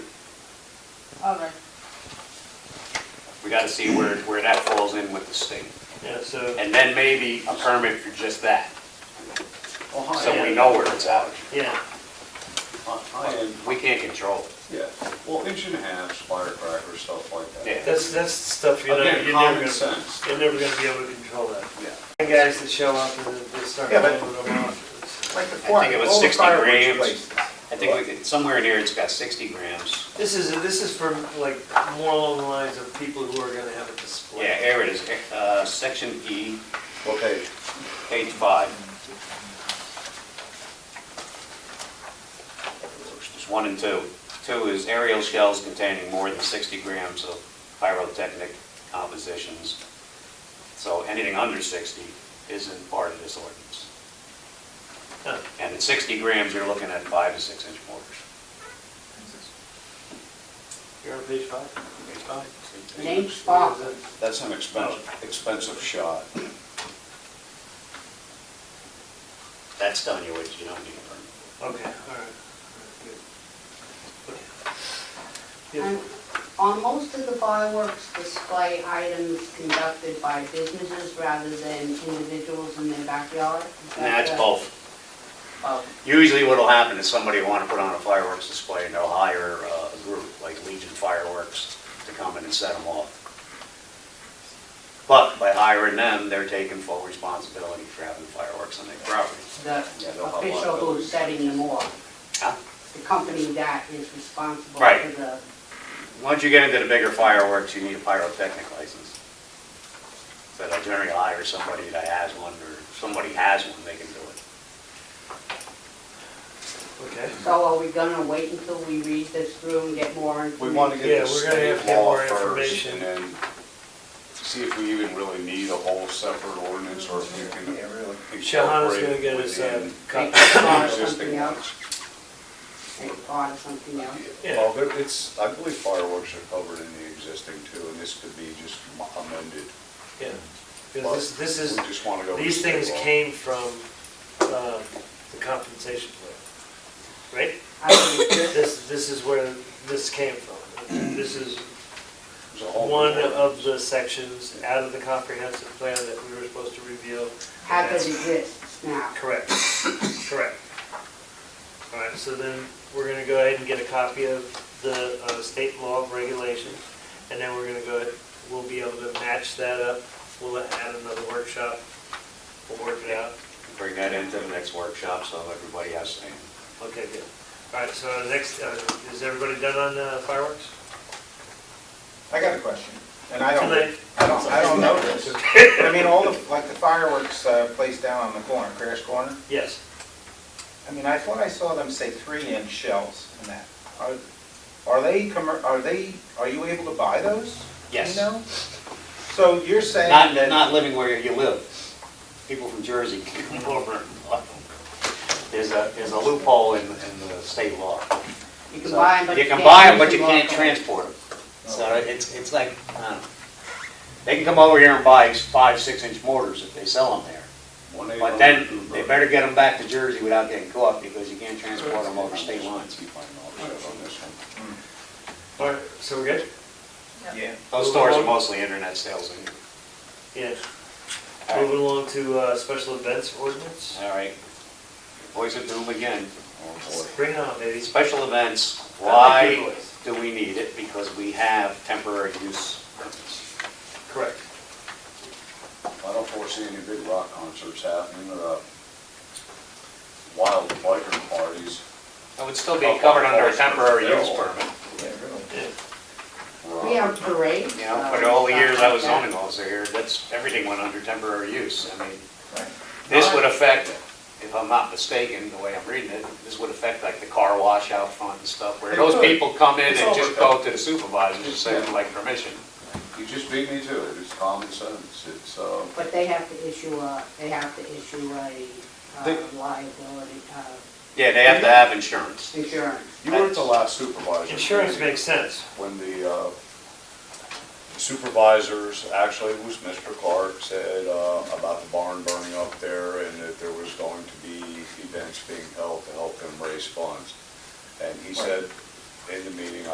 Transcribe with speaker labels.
Speaker 1: All right,
Speaker 2: We gotta see where, where that falls in with the state.
Speaker 3: Yeah, so,
Speaker 2: And then maybe a permit for just that,
Speaker 4: Well, high
Speaker 2: so we
Speaker 4: end-
Speaker 2: know where it's at.
Speaker 3: yeah,
Speaker 4: hi- High end,
Speaker 2: We can't control it.
Speaker 4: yeah, well, inch and a half, firecracker, stuff like that.
Speaker 2: Yeah.
Speaker 3: that's, that's stuff you're never,
Speaker 4: Again,
Speaker 3: you're never
Speaker 4: common
Speaker 3: gonna,
Speaker 4: sense.
Speaker 3: you're never gonna be able to control that.
Speaker 4: Yeah.
Speaker 3: And guys that show up and they they start
Speaker 5: Yeah, but-
Speaker 3: blowing them off.
Speaker 5: Like the
Speaker 2: I think it was
Speaker 5: all the
Speaker 2: 60
Speaker 5: fireworks
Speaker 2: grams.
Speaker 5: places.
Speaker 2: I think we could, somewhere in here, it's got 60 grams.
Speaker 3: This is, this is for like more along the lines of people who are gonna have a display.
Speaker 2: Yeah, here it is, uh, section E,
Speaker 5: Okay,
Speaker 2: page five. There's one and two. Two is aerial shells containing more than 60 grams of pyrotechnic compositions. So anything under 60 isn't part of this ordinance.
Speaker 3: Huh.
Speaker 2: And at 60 grams, you're looking at five to six inch mortars.
Speaker 3: You're on page five?
Speaker 2: Page five.
Speaker 1: name spot.
Speaker 3: What is it?
Speaker 4: That's an expensive, expensive shot.
Speaker 2: That's telling you what you don't need a permit for.
Speaker 3: Okay, all right, all right, good.
Speaker 1: and
Speaker 3: Beautiful.
Speaker 1: on most of the fireworks display items conducted by businesses rather than individuals in their backyard? is that
Speaker 2: Nah, it's
Speaker 1: the-
Speaker 2: both.
Speaker 1: Oh,
Speaker 2: Usually what'll happen is somebody will want to put on a fireworks display and they'll hire uh, a group like Legion Fireworks to come in and set them off. But by hiring them, they're taking full responsibility for having fireworks on their property.
Speaker 1: The
Speaker 4: Yeah, they'll have a lot of
Speaker 1: official who's
Speaker 4: those.
Speaker 1: setting them off,
Speaker 2: Huh?
Speaker 1: the company that is responsible for
Speaker 2: Right.
Speaker 1: the,
Speaker 2: Once you get into the bigger fireworks, you need a pyrotechnic license. But I generally hire somebody that has one or if somebody has one, they can do it.
Speaker 3: Okay.
Speaker 1: so are we gonna wait until we read this through and get more
Speaker 4: We
Speaker 5: Mm-hmm.
Speaker 1: information?
Speaker 4: want to
Speaker 3: Yeah,
Speaker 4: get the
Speaker 3: we're gonna have to
Speaker 4: state
Speaker 3: get
Speaker 4: law
Speaker 3: more
Speaker 4: first
Speaker 3: information.
Speaker 4: and then see if we even really need a whole separate ordinance or if we can
Speaker 3: Shahana's
Speaker 4: incorporate
Speaker 3: gonna
Speaker 4: it
Speaker 3: get us, uh,
Speaker 4: within
Speaker 3: copy.
Speaker 4: the
Speaker 1: Or something
Speaker 4: existing
Speaker 1: else,
Speaker 4: ones.
Speaker 1: take part of something else.
Speaker 3: Yeah.
Speaker 4: Well, there- it's, I believe fireworks are covered in the existing too, and this could be just mo- amended.
Speaker 3: Yeah, because this, this is,
Speaker 4: We just want to go. with
Speaker 3: these
Speaker 4: state
Speaker 3: things
Speaker 4: law.
Speaker 3: came from um, the compensation plan, right?
Speaker 1: I think this-
Speaker 3: This, this is where this came from. This is
Speaker 4: There's a whole
Speaker 3: one
Speaker 4: new
Speaker 3: of the sections out of the comprehensive plan that we were supposed to review.
Speaker 1: How does it exist now?
Speaker 3: Correct, correct. All right, so then we're going to go ahead and get a copy of the uh, state law of regulations, and then we're going to go, ahead. we'll be able to match that up. We'll add another workshop. We'll work it out.
Speaker 2: Bring that into the next workshop so everybody has same.
Speaker 3: Okay, good. All right, so uh, next, uh, is everybody done on uh, fireworks?
Speaker 5: I got a question, and I don't,
Speaker 3: Tonight?
Speaker 5: I don't, I don't know this. But I mean, all the, like the fireworks uh, place down on the corner, Crash Corner,
Speaker 3: Yes.
Speaker 5: I mean, I thought I saw them say three-inch shells and that. Are- Are they, commer- are they, are you able to buy those? Do you
Speaker 2: Yes.
Speaker 5: know? So you're saying
Speaker 2: Not,
Speaker 5: that.
Speaker 2: not living where you live. People from Jersey can come over and buy them. There's a, there's a loophole in, in the state law.
Speaker 1: You can buy them, but you
Speaker 2: You
Speaker 1: can't.
Speaker 2: can buy them,
Speaker 1: use
Speaker 2: but you can't
Speaker 1: locally.
Speaker 2: transport them. So it's, it's like, I don't know. They can come over here and buy five, six inch mortars if they sell them there.
Speaker 4: one.
Speaker 2: But then they better get them back to Jersey without getting caught because you can't transport them over state lines.
Speaker 4: Keep my mouth shut on this one.
Speaker 3: All right, so we're good?
Speaker 5: Yeah.
Speaker 2: Those stores are mostly internet sales. anyway.
Speaker 3: Yeah.
Speaker 2: All right.
Speaker 3: Moving along to uh, special events ordinance.
Speaker 2: All right. Voice of doom again.
Speaker 4: Oh, boy.
Speaker 3: Bring it on, uh, baby.
Speaker 2: Special events,
Speaker 3: Not like
Speaker 2: why
Speaker 3: your voice.
Speaker 2: do we need it? Because we have temporary use permits.
Speaker 3: Correct.
Speaker 4: I don't foresee any big rock concerts happening or uh, wild biker parties.
Speaker 2: It would still be covered under a temporary use permit.
Speaker 5: Yeah, really.
Speaker 3: Yeah.
Speaker 4: or, uh,
Speaker 1: We have parades.
Speaker 2: You know,
Speaker 1: uh,
Speaker 2: but all the
Speaker 1: stuff
Speaker 2: years
Speaker 1: like
Speaker 2: I was
Speaker 1: that.
Speaker 2: zoning officer here, that's, everything went under temporary use. I mean,
Speaker 5: Right.
Speaker 2: this would affect, if I'm not mistaken, the way I'm reading it, this would affect like the car wash out front and stuff, where
Speaker 5: It
Speaker 2: those
Speaker 5: could.
Speaker 2: people come in
Speaker 5: It's
Speaker 2: and just
Speaker 5: overkill.
Speaker 2: go to the supervisor and say, "Would like permission.
Speaker 4: You just beat me to it, it's common sense, it's, uh,
Speaker 1: But they have to issue a, they have to issue a uh,
Speaker 4: They-
Speaker 1: liability, uh,
Speaker 2: Yeah, they have to have insurance.
Speaker 1: insurance.
Speaker 4: you were at the last supervisor.
Speaker 3: Insurance
Speaker 4: meeting
Speaker 3: makes sense.
Speaker 4: When the uh, supervisors, actually it was Mr. Clark, said uh, about the barn burning up there and that there was going to be events being held to help them raise funds. And he said in the meeting,